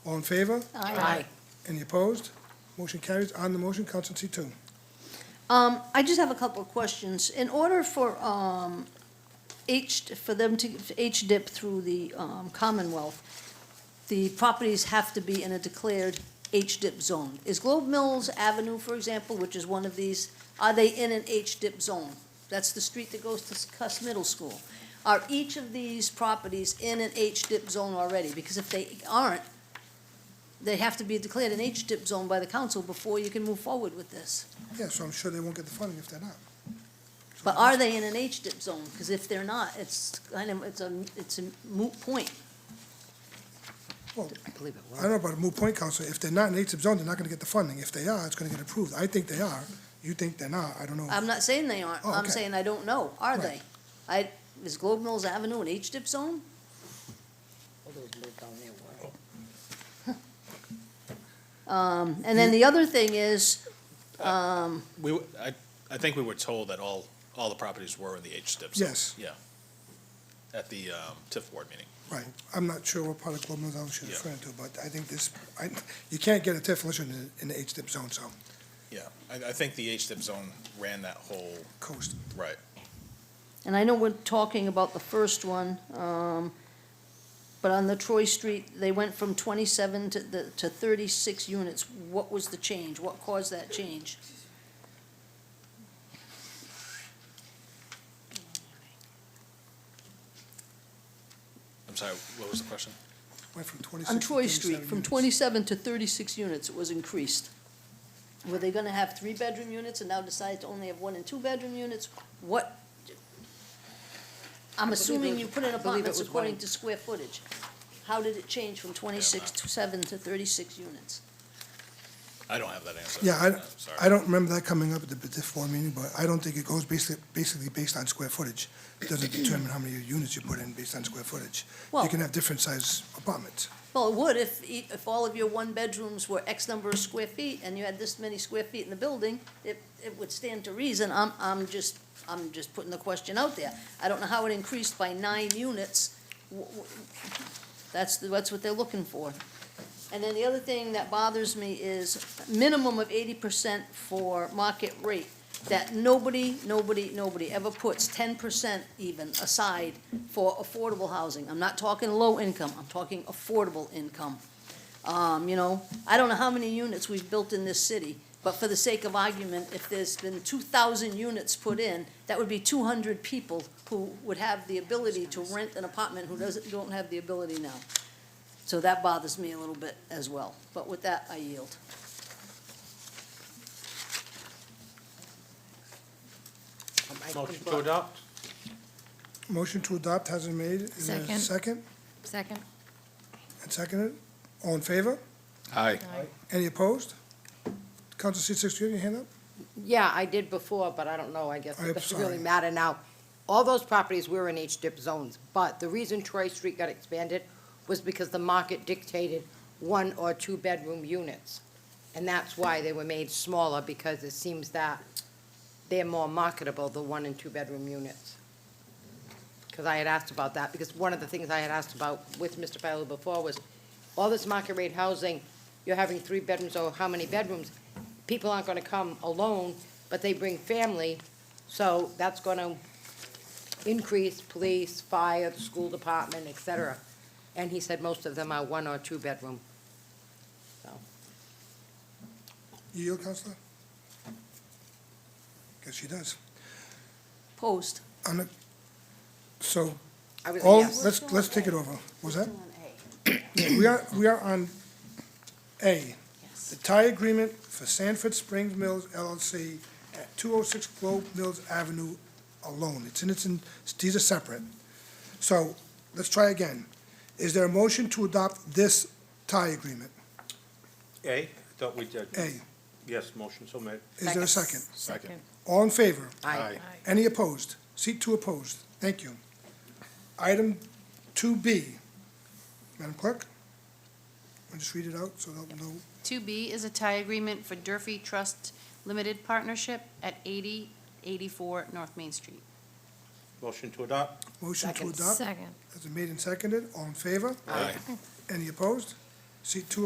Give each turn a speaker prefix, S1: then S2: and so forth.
S1: All in favor?
S2: Aye.
S1: Any opposed? Motion carries. On the motion, Council C two.
S2: Um, I just have a couple of questions. In order for, um, H, for them to, H-dip through the, um, Commonwealth, the properties have to be in a declared H-dip zone. Is Globe Mills Avenue, for example, which is one of these, are they in an H-dip zone? That's the street that goes to Cuss Middle School. Are each of these properties in an H-dip zone already? Because if they aren't, they have to be declared an H-dip zone by the council before you can move forward with this.
S1: Yeah, so I'm sure they won't get the funding if they're not.
S2: But are they in an H-dip zone? Because if they're not, it's kind of, it's a, it's a moot point.
S1: Well,
S3: I believe it
S1: I
S3: was.
S1: don't know about a moot point, Council. If they're not in HIP zone, they're not gonna get the funding. If they are, it's gonna get approved. I think they are. You think they're not. I don't know.
S2: I'm not saying they aren't,
S1: Oh,
S2: I'm
S1: okay.
S2: saying I don't know, are they?
S1: Right.
S2: I, is Globe Mills Avenue an H-dip zone?
S3: All those moved down there were.
S2: Um, and then the other thing is,
S4: We, w- I, I think we were told that all, all the properties were in the H-Dip zone.
S1: Yes.
S4: Yeah. At the um, TIF board meeting.
S1: Right. I'm not sure what part of Globe Mills I was
S4: Yeah.
S1: referring to, but I think this, I, you can't get a TIF unless you're in the- in the HDIP zone, so,
S4: Yeah, I, I think the H-Dip zone ran that whole,
S1: coast.
S4: right.
S2: and I know we're talking about the first one, um, but on the Troy Street, they went from twenty-seven to the, to thirty-six units. What was the change? What caused that change?
S4: I'm sorry, what was the question?
S1: Went from 26
S2: On
S1: to
S2: Troy Street,
S1: 37
S2: from
S1: units.
S2: twenty-seven to thirty-six units, it was increased. Were they gonna have three-bedroom units and now decide to only have one and two-bedroom units? What? I'm assuming you put in
S3: I believe
S2: apartments
S3: it was one
S2: according
S3: and-
S2: to square footage. How did it change from twenty-six to seven to thirty-six units?
S4: I don't have that answer.
S1: Yeah,
S4: I'm sorry.
S1: I, I don't remember that coming up at the TIF board meeting, but I don't think it goes basically, basically based on square footage. It doesn't determine how many units you put in based on square footage. You
S2: Well-
S1: can have different size apartments.
S2: Well, it would if, e- if all of your one-bedrooms were X number of square feet and you had this many square feet in the building, it, it would stand to reason. I'm, I'm just, I'm just putting the question out there. I don't know how it increased by nine units. W- w- That's, the- that's what they're looking for. And then the other thing that bothers me is minimum of eighty percent for market rate, that nobody, nobody, nobody ever puts ten percent even aside for affordable housing. I'm not talking low income, I'm talking affordable income. Um, you know, I don't know how many units we've built in this city, but for the sake of argument, if there's been two thousand units put in, that would be two hundred people who would have the ability to rent an apartment who doesn't, don't have the ability now. So that bothers me a little bit as well, but with that, I yield.
S3: Um, I
S5: Motion
S3: think
S5: to
S3: what-
S5: adopt?
S1: Motion to adopt has been made. Is there a
S6: Second.
S1: Second,
S6: Second.
S1: and seconded. All in favor?
S4: Aye.
S1: Any opposed? Council seat six, do you have your hand up?
S3: Yeah, I did before, but I don't know, I guess
S1: I'm
S3: it doesn't really
S1: sorry.
S3: matter now. All those properties were in H-dip zones, but the reason Troy Street got expanded was because the market dictated one or two-bedroom units. And that's why they were made smaller, because it seems that they're more marketable, the one and two-bedroom units. Because I had asked about that, because one of the things I had asked about with Mr. Fowler before was, all this market rate housing, you're having three bedrooms or how many bedrooms, people aren't gonna come alone, but they bring family, so that's gonna increase police, fire, the school department, et cetera. And he said most of them are one or two bedroom.
S1: You yield, Counselor? Guess she does.
S2: Post.
S1: On the, so,
S3: I was a
S1: all,
S3: yes.
S1: Oh, let's, let's take it over. Was that? Yeah, We are, we are on A, the tie agreement for Sanford Springs Mills LLC at 206 Globe Mills Avenue alone. It's in, it's in, these are separate. So let's try again. Is there a motion to adopt this tie agreement?
S5: A, I thought we did.
S1: A,
S5: Yes, motion so made.
S1: is there a second?
S4: Second.
S1: All in favor?
S3: Aye.
S1: Any opposed? Seat two opposed. Thank you. Item two B. Madam Clerk? I'll just read it out so they'll know.
S6: 2B is a tie agreement for Durfee Trust Limited Partnership at 8084 North Main Street.
S5: Motion to adopt?
S1: Motion to
S3: Second.
S1: adopt. Has been made and seconded. All in favor?
S4: Aye.
S1: Any opposed? See two